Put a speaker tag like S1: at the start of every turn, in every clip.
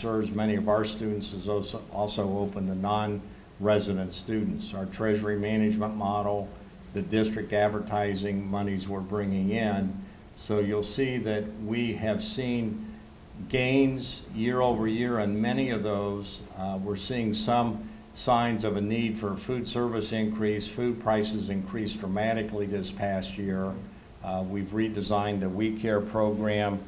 S1: serves many of our students is also, also open to non-resident students. Our treasury management model, the district advertising monies we're bringing in. So you'll see that we have seen gains year over year in many of those. Uh, We're seeing some signs of a need for food service increase. Food prices increased dramatically this past year. Uh, We've redesigned the We Care program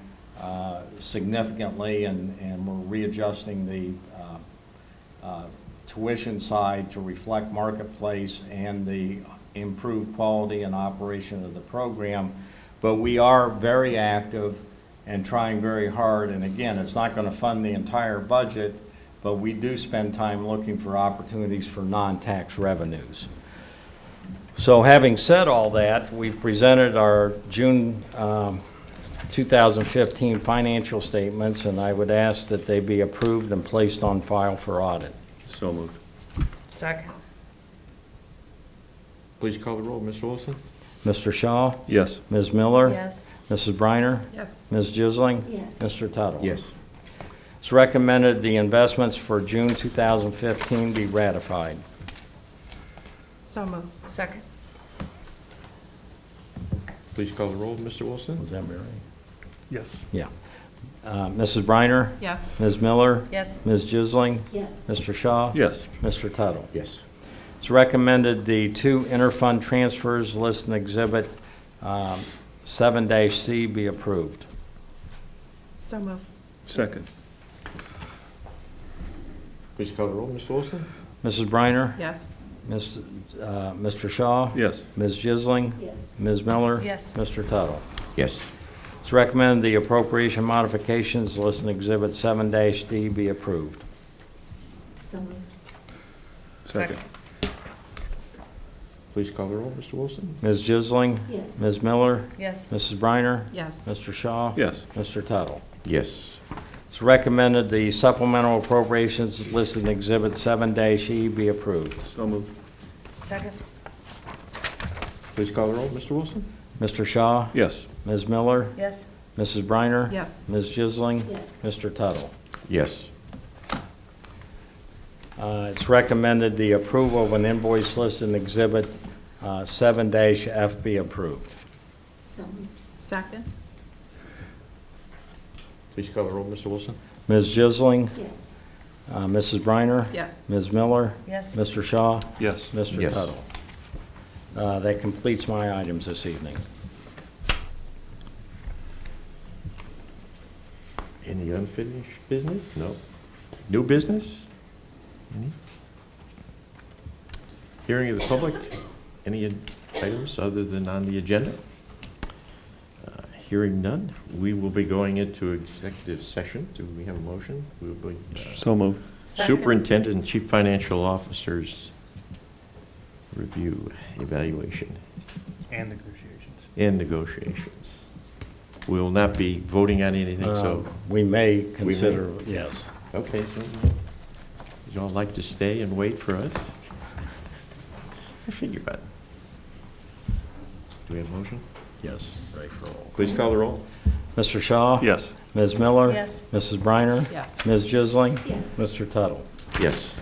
S1: uh, significantly, and, and we're readjusting the uh, uh, tuition side to reflect marketplace and the improved quality and operation of the program. But we are very active and trying very hard, and again, it's not going to fund the entire budget, but we do spend time looking for opportunities for non-tax revenues. So having said all that, we've presented our June um, 2015 financial statements, and I would ask that they be approved and placed on file for audit.
S2: So moved.
S3: Second.
S4: Please call the roll, Mr. Wilson?
S1: Mr. Shaw?
S2: Yes.
S1: Ms. Miller?
S3: Yes.
S1: Mrs. Briner?
S3: Yes.
S1: Ms. Jisling?
S5: Yes.
S1: Mr. Tuttle?
S4: Yes.
S1: It's recommended the investments for June 2015 be ratified.
S3: So moved. Second.
S4: Please call the roll, Mr. Wilson?
S1: Was that right?
S2: Yes.
S1: Yeah. Uh, Mrs. Briner?
S3: Yes.
S1: Ms. Miller?
S3: Yes.
S1: Ms. Jisling?
S5: Yes.
S1: Mr. Shaw?
S2: Yes.
S1: Mr. Tuttle?
S4: Yes.
S1: It's recommended the two interfund transfers listed in Exhibit um, 7-C be approved.
S3: So moved.
S2: Second.
S4: Please call the roll, Mr. Wilson?
S1: Mrs. Briner?
S3: Yes.
S1: Mr. uh, Mr. Shaw?
S2: Yes.
S1: Ms. Jisling?
S5: Yes.
S1: Ms. Miller?
S3: Yes.
S1: Mr. Tuttle?
S4: Yes.
S1: It's recommended the appropriation modifications listed in Exhibit 7-D be approved.
S5: So moved.
S2: Second.
S4: Please call the roll, Mr. Wilson?
S1: Ms. Jisling?
S5: Yes.
S1: Ms. Miller?
S3: Yes.
S1: Mrs. Briner?
S3: Yes.
S1: Mr. Shaw?
S2: Yes.
S1: Mr. Tuttle?
S4: Yes.
S1: It's recommended the supplemental appropriations listed in Exhibit 7-E be approved.
S2: So moved.
S3: Second.
S4: Please call the roll, Mr. Wilson?
S1: Mr. Shaw?
S2: Yes.
S1: Ms. Miller?
S3: Yes.
S1: Mrs. Briner?
S3: Yes.
S1: Ms. Jisling?
S5: Yes.
S1: Mr. Tuttle?
S4: Yes.
S1: Uh, It's recommended the approval of an invoice listed in Exhibit uh, 7-F be approved.
S5: So moved.
S3: Second.
S4: Please call the roll, Mr. Wilson?
S1: Ms. Jisling?
S5: Yes.
S1: uh, Mrs. Briner?
S3: Yes.
S1: Ms. Miller?
S3: Yes.
S1: Mr. Shaw?
S2: Yes.
S1: Mr.
S4: Yes.
S1: Tuttle? Uh, That completes my items this evening.
S4: Any unfinished business? No. New business? Any? Hearing of the public? Any items other than on the agenda? Uh, Hearing none, we will be going into executive session. Do we have a motion? We will be uh,
S2: So moved.
S3: Second.
S4: Superintendent and Chief Financial Officers review, evaluation,
S6: And negotiations.
S4: and negotiations. We will not be voting on anything, so,
S1: Uh, We may consider, yes.
S4: okay, so you all like to stay and wait for us? I figure about it. Do we have a motion?
S1: Yes, ready for all.
S4: Please call the roll.
S1: Mr. Shaw?
S2: Yes.
S1: Ms. Miller?
S3: Yes.
S1: Mrs. Briner?
S3: Yes.
S1: Ms. Jisling?
S5: Yes.
S1: Mr. Tuttle?
S4: Yes.